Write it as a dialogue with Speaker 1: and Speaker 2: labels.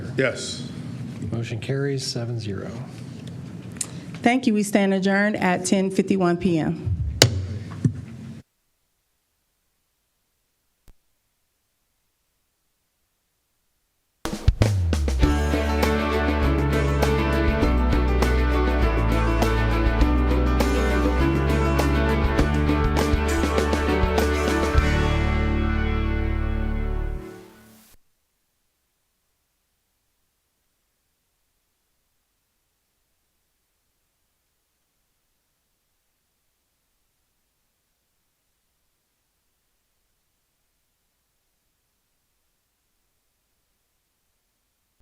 Speaker 1: Yes.
Speaker 2: Motion carries seven zero.
Speaker 3: Thank you. We stand adjourned at 10:51 PM.